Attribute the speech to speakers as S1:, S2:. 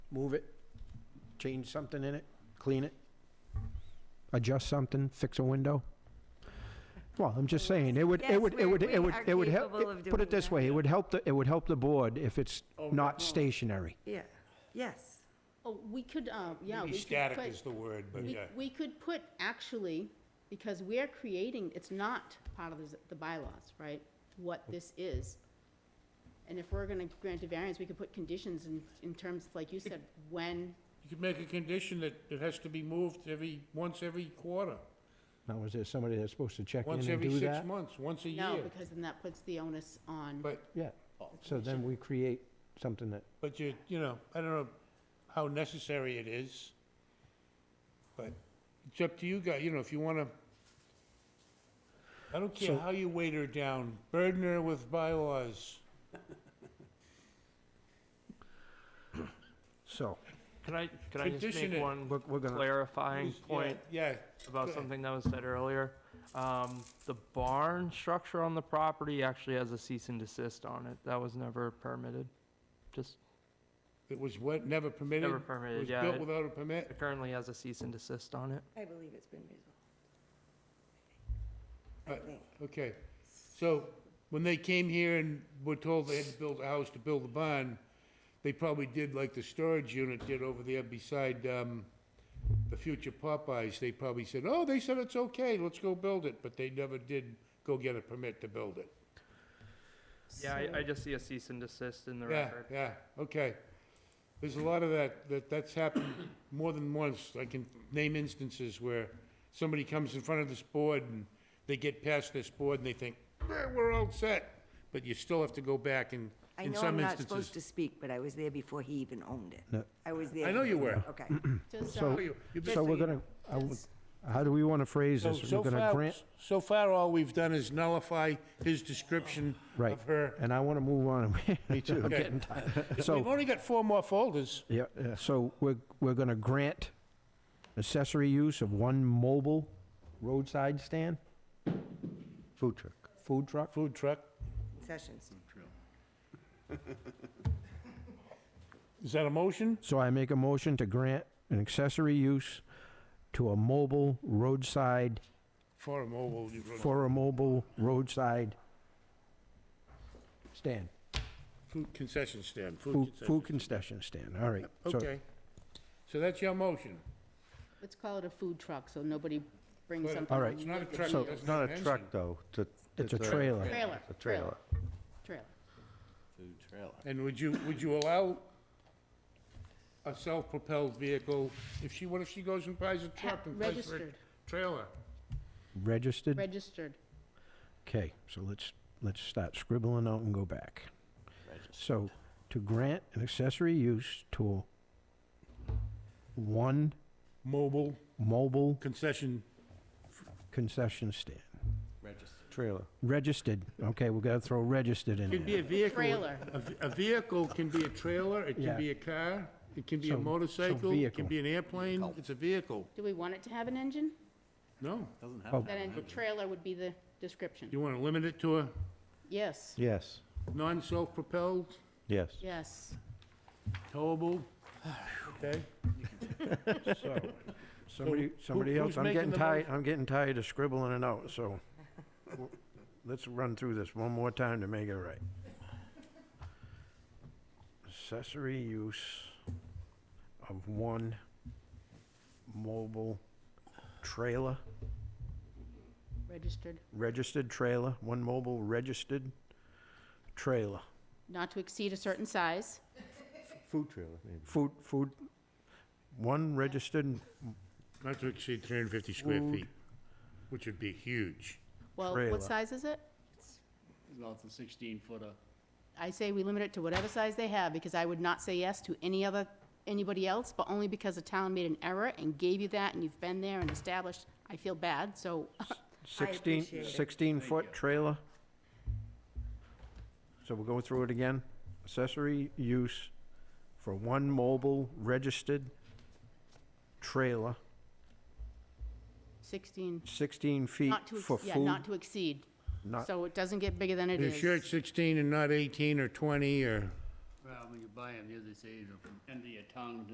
S1: move it, change something in it, clean it, adjust something, fix a window. Well, I'm just saying, it would, it
S2: Yes,
S1: would, it
S2: we're-
S1: would,
S2: we
S1: it would,
S2: are
S1: it would help.
S2: capable of
S1: Put
S2: doing
S1: it this
S2: that.
S1: way, it would help, the it would help the board if it's
S3: Oh,
S1: not
S3: definitely.
S1: stationary.
S2: Yeah, yes.
S4: Oh, we could, uh, yeah.
S3: Maybe
S4: we could
S3: static
S4: put-
S3: is the word, but
S4: we-
S3: yeah.
S4: We could put actually, because we're creating, it's not part of the z- the bylaws, right? What this is. And if we're gonna grant a variance, we could put conditions in, in terms, like you said, when,
S3: You could make a condition that it has to be moved every, once every quarter,
S1: Now, is there somebody that's supposed to check in
S3: once
S1: and
S3: every
S1: do
S3: six
S1: that?
S3: months, once a
S4: no,
S3: year.
S4: because then that puts the onus on.
S3: But,
S1: Yeah, so then we create something that,
S3: but you, you know, I don't know how necessary it is, but it's up to you guys, you know, if you wanna, I don't care
S1: So-
S3: how you weight her down, burden her with bylaws.
S1: so,
S5: Can I, can I just
S3: Condition it.
S5: make one
S1: we're, we're gonna,
S5: clarifying point
S3: Yeah,
S5: about
S3: ahead.
S5: something that was said earlier? Um, the barn structure on the property actually has a cease and desist on it. That was never permitted. Just,
S3: it was what, never permitted?
S5: Never permitted,
S3: It
S5: yeah,
S3: was
S5: it-
S3: built without a permit?
S5: it currently has a cease and desist on it.
S2: I believe it's been resolved. I
S3: Right.
S2: think.
S3: Okay, so when they came here and were told they had to build a house to build a barn, they probably did like the storage unit did over there beside, um, the future Popeyes. They probably said, oh, they said it's okay, let's go build it, but they never did go get a permit to build it.
S5: Yeah, I, I just see a cease and desist in the
S3: Yeah,
S5: record.
S3: yeah, okay. There's a lot of that, that, that's happened more than once. I can name instances where somebody comes in front of this board and they get past this board and they think, "Eh, we're all set. But you still have to go back and,
S2: I
S3: in
S2: know I'm
S3: some
S2: not supposed to
S3: instances.
S2: speak, but I was there before he even owned
S1: No.
S2: it. I was there.
S3: I know you were.
S2: Okay.
S4: Just,
S1: So-
S4: uh,
S3: Oh, you- you've been-
S1: so we're gonna, I would- how do we wanna phrase
S3: So,
S1: this?
S3: so
S1: We're gonna
S3: far,
S1: grant,
S3: so far, all we've done is nullify his description
S1: Right.
S3: of her.
S1: and I wanna move on.
S3: Me too. We've
S1: So-
S3: only got four more folders.
S1: Yeah, yeah. so we're, we're gonna grant accessory use of one mobile roadside stand? Food truck. Food truck?
S3: Food truck.
S2: Sessions.
S3: Is that a motion?
S1: So I make a motion to grant an accessory use to a mobile roadside,
S3: For a mobile. you wrote-
S1: for a mobile roadside stand,
S3: Food concession stand, food
S1: food, food
S3: concession.
S1: concession stand, all right. So-
S3: Okay. So that's your motion?
S4: let's call it a food truck, so nobody brings
S3: But-
S4: something.
S1: All right.
S4: on
S3: It's not a
S4: the-
S3: truck.
S1: So-
S3: it doesn't
S6: Not
S3: have
S6: a
S3: an
S6: truck,
S3: engine.
S6: though. It's a-
S1: It's a trailer.
S4: Trailer.
S6: a trailer.
S4: Trailer.
S3: And would you, would you allow a self-propelled vehicle, if she, what if she goes and buys a truck and buys for a
S4: Registered,
S3: trailer?
S1: Registered,
S4: registered.
S1: okay, so let's, let's start scribbling out and go back. So, to grant an accessory use to one
S3: Mobile
S1: mobile
S3: concession,
S1: concession stand.
S6: Trailer.
S1: Registered, okay, we're gonna throw registered in
S3: could be a
S1: there.
S3: vehicle.
S4: Trailer.
S3: A v- A vehicle can be a trailer, it
S1: Yeah.
S3: can be a car, it can be
S1: So-
S3: a
S1: so
S3: motorcycle, it
S1: vehicle.
S3: can be an airplane, it's a vehicle.
S4: Do we want it to have an engine?
S3: No,
S4: Then a trailer would be the description.
S3: you want to limit it to a
S4: Yes,
S6: Yes,
S3: non-self-propelled,
S6: yes.
S4: yes.
S3: towable, okay?
S1: So, Somebody,
S3: who-
S1: somebody
S3: who's
S1: else, I'm
S3: making
S1: getting
S3: the
S1: tired, I'm getting tired of scribbling it out, so w- let's run through this one more time to make it right. Accessory use of one mobile trailer,
S4: Registered,
S1: registered trailer, one mobile registered trailer.
S4: not to exceed a certain size.
S6: Food trailer, maybe.
S1: Food, food, one registered
S3: Not to exceed 350 square
S1: Food.
S3: feet, which would be huge.
S4: Well,
S1: Trailer.
S4: what size is it?
S7: No, it's a sixteen footer.
S4: I say we limit it to whatever size they have, because I would not say yes to any other, anybody else, but only because the town made an error and gave you that, and you've been there and established, I feel bad, so,
S1: 16,
S2: appreciate it.
S1: 16-foot trailer. So we'll go through it again. Accessory use for one mobile registered trailer,
S4: 16,
S1: 16 feet
S4: not to, ex-
S1: for
S4: yeah,
S1: food.
S4: not to exceed.
S1: Not-
S4: So it doesn't get bigger than it
S3: Are you
S4: is.
S3: sure it's 16 and not 18 or 20 or,
S7: Well, when you buy them here, they say, you know, from end of your tongue to